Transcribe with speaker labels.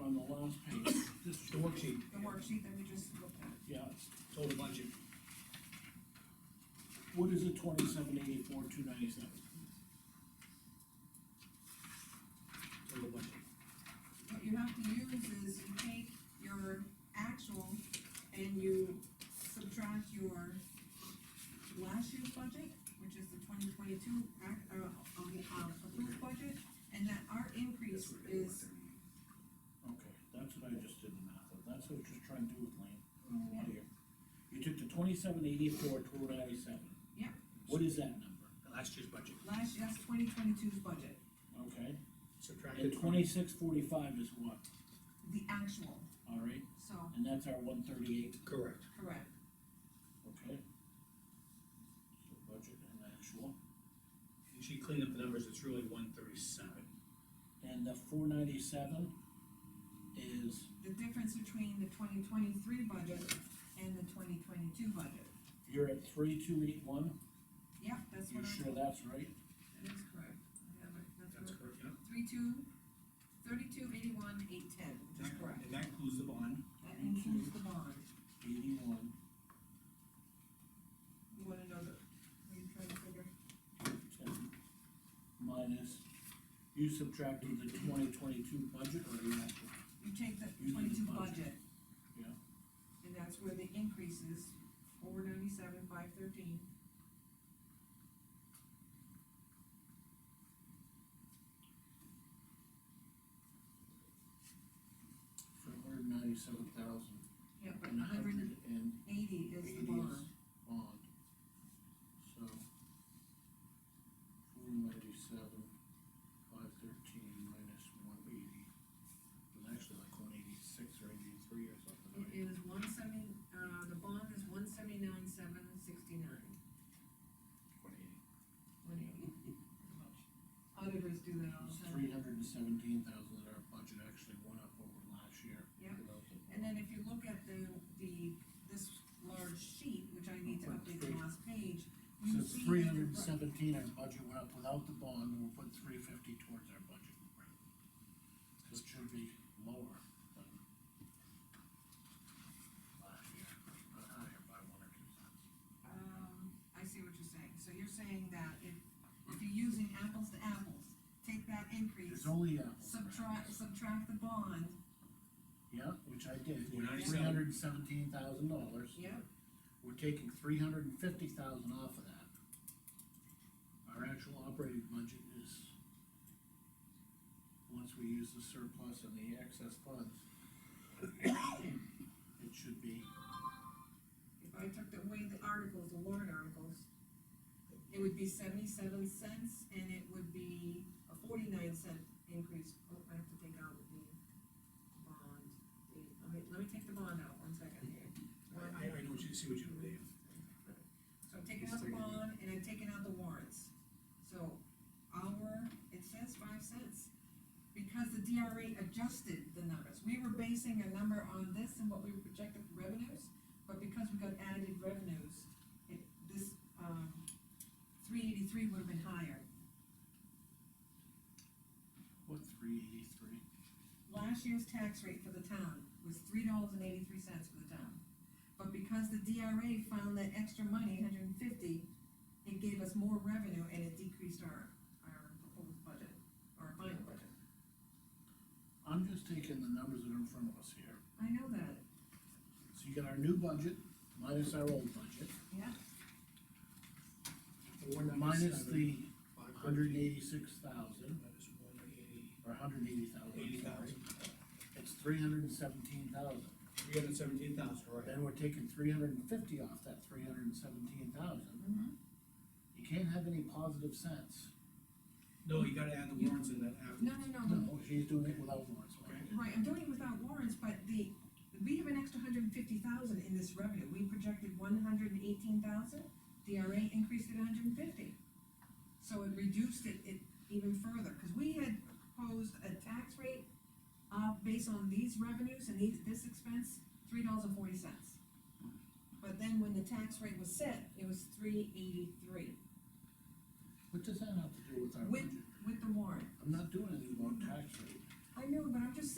Speaker 1: on the last page, this
Speaker 2: The worksheet,
Speaker 3: the worksheet that we just looked at.
Speaker 1: yeah, it's,
Speaker 2: total budget,
Speaker 1: what is it, twenty-seven eighty-four, two ninety-seven?
Speaker 2: total budget.
Speaker 3: What you have to use is you take your actual and you subtract your last year's budget, which is the twenty twenty-two, uh, um, uh, approved budget, and that our increase is,
Speaker 1: Okay, that's what I just did the math of, that's what I was just trying to do with Lane, on the lot here. You took the twenty-seven eighty-four, two ninety-seven.
Speaker 3: Yeah.
Speaker 1: What is that number?
Speaker 2: Last year's budget,
Speaker 3: last, that's twenty twenty-two's budget,
Speaker 1: Okay, and
Speaker 2: subtracted twenty,
Speaker 1: twenty-six forty-five is what,
Speaker 3: the actual,
Speaker 1: all right,
Speaker 3: so,
Speaker 1: and that's our one thirty-eight,
Speaker 2: correct,
Speaker 3: correct.
Speaker 1: okay? So budget and actual,
Speaker 2: and she cleaned up the numbers, it's really one thirty-seven.
Speaker 1: and the four ninety-seven is
Speaker 3: The difference between the twenty twenty-three budget and the twenty twenty-two budget.
Speaker 1: You're at three, two, eight, one,
Speaker 3: Yep, that's
Speaker 1: you're
Speaker 3: what I,
Speaker 1: sure that's right?
Speaker 3: that is correct. I have it. That's
Speaker 2: That's
Speaker 3: what-
Speaker 2: correct, yeah.
Speaker 3: Three two, thirty-two eighty-one, eight ten, which is correct.
Speaker 2: And that includes the bond,
Speaker 3: That includes the bond.
Speaker 1: Eighty-one,
Speaker 3: You wanna know the, are you trying to figure?
Speaker 1: ten, minus, you subtracted the twenty twenty-two budget or the actual?
Speaker 3: You take the
Speaker 1: You need the
Speaker 3: twenty-two
Speaker 1: budget.
Speaker 3: budget.
Speaker 1: Yeah.
Speaker 3: And that's where the increase is, four ninety-seven, five thirteen.
Speaker 1: For hundred ninety-seven thousand,
Speaker 3: Yeah, but
Speaker 1: and a
Speaker 3: hundred
Speaker 1: hundred
Speaker 3: and
Speaker 1: and
Speaker 3: eighty is the
Speaker 1: eighty is
Speaker 3: bond.
Speaker 1: bond. So, four ninety-seven, five thirteen minus one eighty, it's actually like one eighty-six or eighty-three or something,
Speaker 3: It
Speaker 1: right?
Speaker 3: is one seventy, uh, the bond is one seventy-nine, seven sixty-nine.
Speaker 1: One eighty.
Speaker 3: One eighty. Auditors do that all the
Speaker 1: It's
Speaker 3: time.
Speaker 1: three hundred and seventeen thousand that our budget actually went up over last year.
Speaker 3: Yeah.
Speaker 1: Without the-
Speaker 3: And then if you look at the, the, this large sheet, which I need to update the last page,
Speaker 1: So
Speaker 3: you
Speaker 1: it's
Speaker 3: see.
Speaker 1: three
Speaker 3: that the-
Speaker 1: hundred and seventeen, our budget went up without the bond, and we'll put three fifty towards our budget. So it should be lower than last year, not higher by one or two cents.
Speaker 3: Um, I see what you're saying, so you're saying that if, if you're using apples to apples, take that increase,
Speaker 1: It's only apples. and
Speaker 3: subtract,
Speaker 1: apples.
Speaker 3: subtract the bond,
Speaker 1: Yeah, which I did,
Speaker 2: We're not
Speaker 1: three hundred and seventeen thousand dollars.
Speaker 3: yeah,
Speaker 1: we're taking three hundred and fifty thousand off of that. Our actual operating budget is, once we use the surplus and the excess funds, it should be,
Speaker 3: if I took away the articles, the warrant articles, it would be seventy-seven cents, and it would be a forty-nine cent increase, oh, I have to take out the bond, the, let me, let me take the bond out, one second here.
Speaker 2: I, I know what you, see what you believe.
Speaker 3: So I'm taking out the bond and I'm taking out the warrants. So our, it says five cents. Because the DRA adjusted the numbers. We were basing a number on this and what we projected for revenues, but because we got added revenues, it, this, um, three eighty-three would have been higher.
Speaker 1: what, three eighty-three?
Speaker 3: Last year's tax rate for the town was three dollars and eighty-three cents for the town. But because the DRA found that extra money, hundred and fifty, it gave us more revenue and it decreased our, our proposed budget, our final budget.
Speaker 1: I'm just taking the numbers that are in front of us here.
Speaker 3: I know that,
Speaker 1: So you got our new budget minus our old budget,
Speaker 3: yeah,
Speaker 1: minus the
Speaker 2: Five
Speaker 1: hundred and
Speaker 2: thirteen.
Speaker 1: eighty-six thousand,
Speaker 2: Minus one eighty.
Speaker 1: or hundred and eighty thousand.
Speaker 2: Eighty thousand.
Speaker 1: It's three hundred and seventeen thousand.
Speaker 2: Three hundred seventeen thousand, right.
Speaker 1: Then we're taking three hundred and fifty off that three hundred and seventeen thousand. You can't have any positive sense.
Speaker 2: No, you gotta add the warrants in that after.
Speaker 3: No, no, no,
Speaker 1: No, she's doing it without warrants, okay?
Speaker 3: right, I'm doing it without warrants, but the, we have an extra hundred and fifty thousand in this revenue. We projected one hundred and eighteen thousand, DRA increased it hundred and fifty. So it reduced it, it even further, because we had proposed a tax rate, uh, based on these revenues and these, this expense, three dollars and forty cents. But then when the tax rate was set, it was three eighty-three
Speaker 1: What does that have to do with our
Speaker 3: With-
Speaker 1: budget?
Speaker 3: with the warrant.
Speaker 1: I'm not doing anything about tax rate.
Speaker 3: I know, but I'm just